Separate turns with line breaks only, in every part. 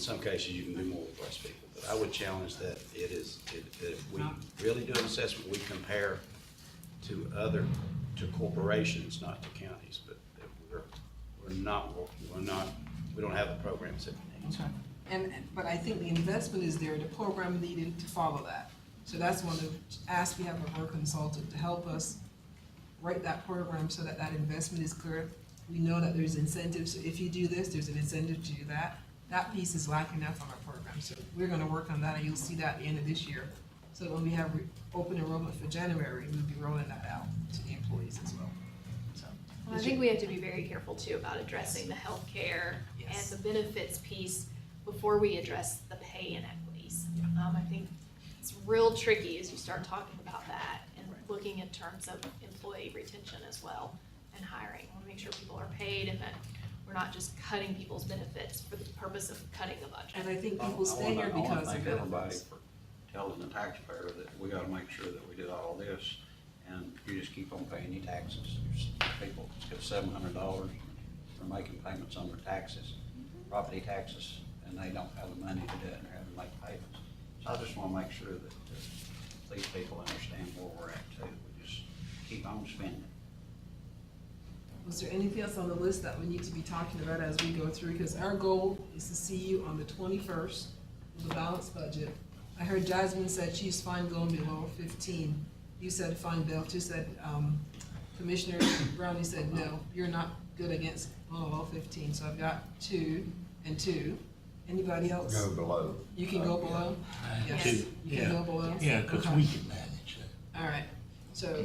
In some cases, you can do more with less people, but I would challenge that it is, it- that if we really do an assessment, we compare to other, to corporations, not to counties, but that we're, we're not, we're not, we don't have the programs that we need.
Okay. And, but I think the investment is there, the program needed to follow that. So that's one of the asks we have of our consultant to help us write that program so that that investment is clear. We know that there's incentives, if you do this, there's an incentive to do that. That piece is lacking enough on our program, so we're gonna work on that, and you'll see that at the end of this year. So when we have re- open enrollment for January, we'll be rolling that out to the employees as well, so.
Well, I think we have to be very careful too about addressing the healthcare and
Yes.
the benefits piece before we address the pay inequities. Um, I think it's real tricky as you start talking about that and
Right.
looking in terms of employee retention as well and hiring. I want to make sure people are paid and that we're not just cutting people's benefits for the purpose of cutting a
And
budget.
I think
I- I
people stay
wanna-
here because
I
of
want to thank everybody
benefits.
for telling the taxpayer that we gotta make sure that we did all this, and you just keep on paying your taxes. There's People get seven hundred dollars for making payments on their taxes, property taxes, and they don't have the money to do it, and they're having to make payments. So I just wanna make sure that uh, these people understand where we're at too, we just keep on spending.
Was there anything else on the list that we need to be talking about as we go through? Because our goal is to see you on the twenty-first with a balanced budget. I heard Jasmine said she's fine going below fifteen. You said fine, Bill, you said, um, Commissioner Brownie said, no, you're not good against below fifteen, so I've got two and two. Anybody else?
go below. Uh,
You can go below? Yes,
Two,
you can go below?
Yeah, because
Okay.
we can manage that.
All right, so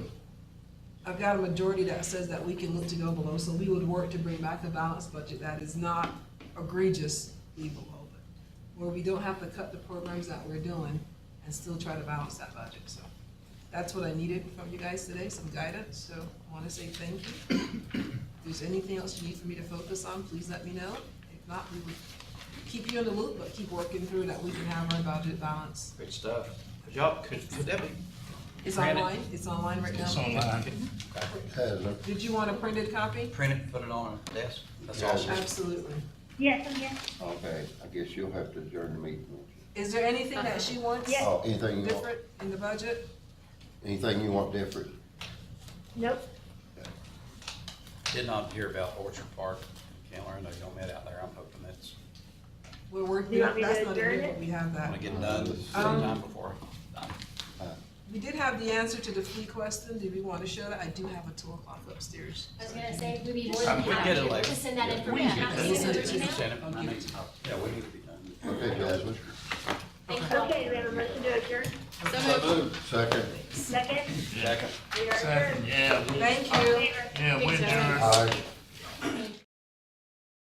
I've got a majority that says that we can look to go below, so we would work to bring back a balanced budget that is not egregiously below, but where we don't have to cut the programs that we're doing and still try to balance that budget, so. That's what I needed from you guys today, some guidance, so I want to say thank you. If there's anything else you need for me to focus on, please let me know. If not, we would keep you in the loop, but keep working through that we can have our budget balance.
Great stuff. Could Y'all, could, could that be,
It's
Granted.
online, it's online right now.
It's online.
Hasn't.
Did you want a printed copy?
Print it, put it on a desk, that's all.
Yeah.
Absolutely.
Yes, I'm here.
Okay, I guess you'll have to adjourn the meeting. won't you?
Is there anything that she wants
Uh-huh. Yes.
Oh, anything you want,
different in the budget?
anything you want different?
Nope.
did not hear about Orchard Park, Keller, I know y'all met out there, I'm hoping that's
We're working,
You want me to
that's not in
adjourn
here,
it?
but we have
gonna
that.
get done sometime before. I'm done.
We did have the answer to the flea question, did we want to show that? I do have a two o'clock upstairs.
I was gonna say, we'd be more
Um,
than
we get it
happy
later.
to send that
We
information.
can
Have
get
you
it.
sent it
We can
to
send it.
I'll
I
give
mean,
it
Yeah, we need to be done.
Okay, Jasmine.
Thank you all.
Okay, we have a motion to adjourn.
Second.
Second,
Yeah.
we are adjourned.
Second, yeah, we-
Thank you.
Favor?
yeah,
Thanks,
we're doing.
Evan.
Aye.